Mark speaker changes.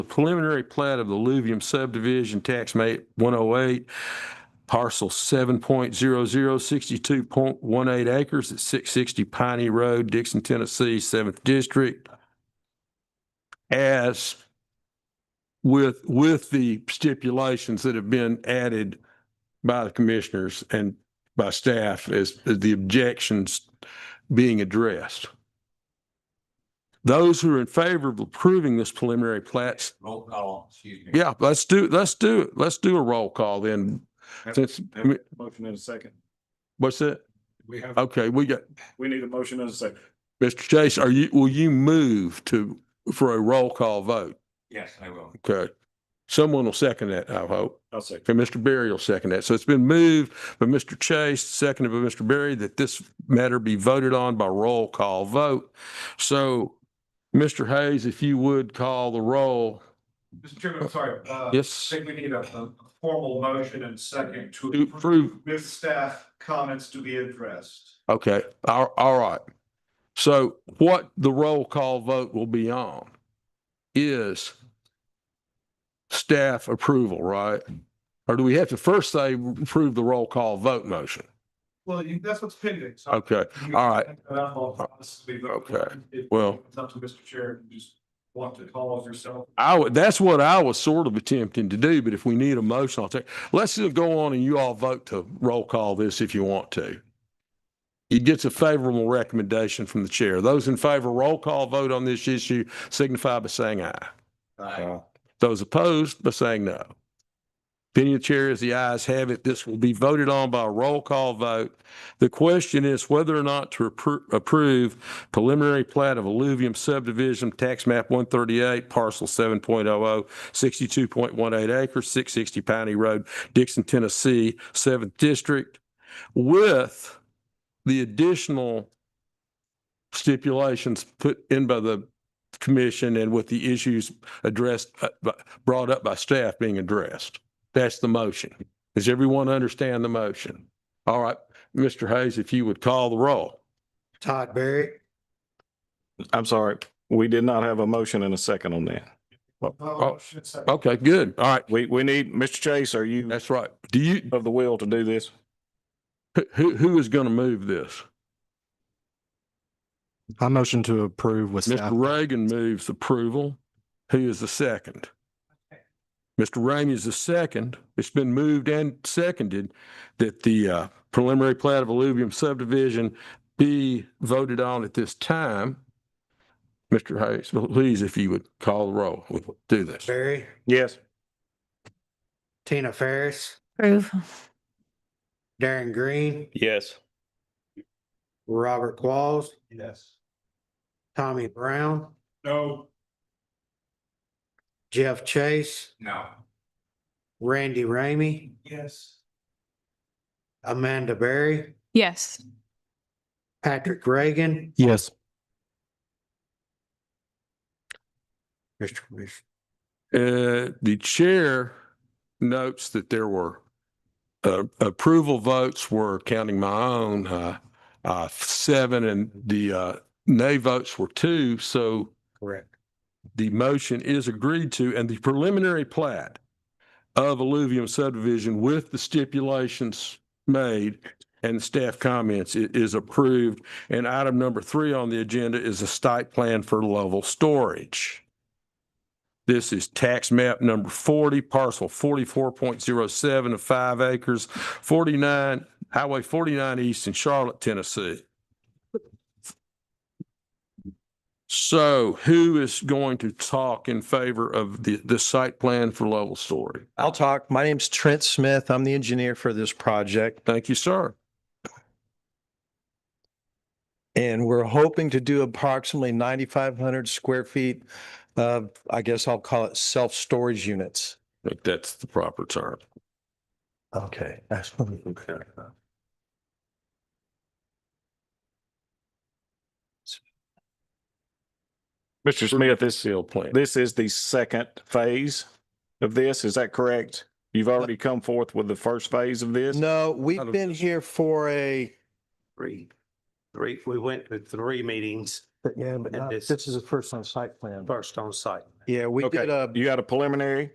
Speaker 1: The preliminary plat of the Luvium subdivision, tax map 108, parcel 7.0062.18 acres at 660 Piney Road, Dixon, Tennessee, 7th District, as with, with the stipulations that have been added by the commissioners and by staff as as the objections being addressed. Those who are in favor of approving this preliminary plat,
Speaker 2: Roll call, excuse me.
Speaker 1: yeah, let's do, let's do, it. let's do a roll call then. Since,
Speaker 3: Motion in a second.
Speaker 1: what's that?
Speaker 3: We have,
Speaker 1: Okay, we got,
Speaker 3: we need a motion in a second.
Speaker 1: Mr. Chase, are you, will you move to, for a roll call vote?
Speaker 2: Yes, I will.
Speaker 1: Okay. Someone will second that, I hope.
Speaker 3: I'll second.
Speaker 1: Okay, Mr. Berry will second that. So it's been moved by Mr. Chase, seconded by Mr. Berry, that this matter be voted on by roll call vote. So, Mr. Hayes, if you would call the roll.
Speaker 4: Mr. Chairman, I'm sorry. uh, I
Speaker 1: Yes,
Speaker 4: think we need a, a formal motion and second
Speaker 1: to
Speaker 4: to approve
Speaker 1: approve.
Speaker 4: with staff comments to be addressed.
Speaker 1: Okay, all, all right. So what the roll call vote will be on is staff approval, right? Or do we have to first say approve the roll call vote motion?
Speaker 4: Well, you, that's what's pending, so.
Speaker 1: Okay, all right. Okay,
Speaker 4: Okay,
Speaker 1: well-
Speaker 4: It's up to Mr. Chair, you just want to call of yourself.
Speaker 1: I would, that's what I was sort of attempting to do, but if we need a motion, I'll take, let's just go on and you all vote to roll call this if you want to. It gets a favorable recommendation from the chair. Those in favor, roll call vote on this issue signify by saying aye.
Speaker 2: Aye.
Speaker 1: Uh, Those opposed by saying no. Opinion of the chair is the ayes have it. This will be voted on by a roll call vote. The question is whether or not to appro- approve preliminary plat of alluvium subdivision, tax map 138, parcel 7.00, 62.18 acres, 660 Piney Road, Dixon, Tennessee, 7th District, with the additional stipulations put in by the commission and with the issues addressed, uh, bu- brought up by staff being addressed. That's the motion. Does everyone understand the motion? All right, Mr. Hayes, if you would call the roll.
Speaker 5: Todd Barry,
Speaker 3: I'm sorry, we did not have a motion in a second on that.
Speaker 1: Oh, Okay, good. All right,
Speaker 3: We, we need, Mr. Chase, are you
Speaker 1: that's right. Do you,
Speaker 3: of the will to do this?
Speaker 1: who- who, who is going to move this?
Speaker 5: I motion to approve with
Speaker 1: Mr.
Speaker 5: staff.
Speaker 1: Reagan moves approval. Who is the second? Mr. Ramey is the second. It's been moved and seconded that the uh, preliminary plat of alluvium subdivision be voted on at this time. Mr. Hayes, please, if you would call the roll, we'll do this.
Speaker 5: Barry,
Speaker 3: Yes.
Speaker 5: Tina Ferris,
Speaker 6: Approve.
Speaker 5: Darren Green,
Speaker 3: Yes.
Speaker 5: Robert Qualls,
Speaker 4: Yes.
Speaker 5: Tommy Brown,
Speaker 4: No.
Speaker 5: Jeff Chase,
Speaker 2: No.
Speaker 5: Randy Ramey,
Speaker 4: Yes.
Speaker 5: Amanda Berry,
Speaker 6: Yes.
Speaker 5: Patrick Reagan,
Speaker 3: Yes.
Speaker 5: Mr. Commissioner.
Speaker 1: Uh, the chair notes that there were uh, approval votes were counting my own, uh, uh, seven and the, uh, nay votes were two. So
Speaker 5: Correct.
Speaker 1: the motion is agreed to and the preliminary plat of alluvium subdivision with the stipulations made and staff comments i- is approved. And item number three on the agenda is a site plan for level storage. This is tax map number forty, parcel forty-four point zero seven of five acres, forty-nine, Highway forty-nine east in Charlotte, Tennessee. So who is going to talk in favor of the, the site plan for level story?
Speaker 7: I'll talk. My name's Trent Smith. I'm the engineer for this project,
Speaker 1: Thank you, sir.
Speaker 7: and we're hoping to do approximately 9,500 square feet of, I guess I'll call it self-storage units.
Speaker 1: I think that's the proper term.
Speaker 7: Okay.
Speaker 3: Mr. Smith, this,
Speaker 1: Field plan.
Speaker 3: this is the second phase of this, is that correct? You've already come forth with the first phase of this?
Speaker 7: No,
Speaker 1: Out
Speaker 7: we've
Speaker 1: of-
Speaker 7: been here for a,
Speaker 5: Three, three, we went to three meetings
Speaker 7: yeah, but
Speaker 5: not-
Speaker 7: this is the first on site plan.
Speaker 5: first on site.
Speaker 7: Yeah, we
Speaker 3: Okay,
Speaker 7: did a.
Speaker 3: you got a preliminary?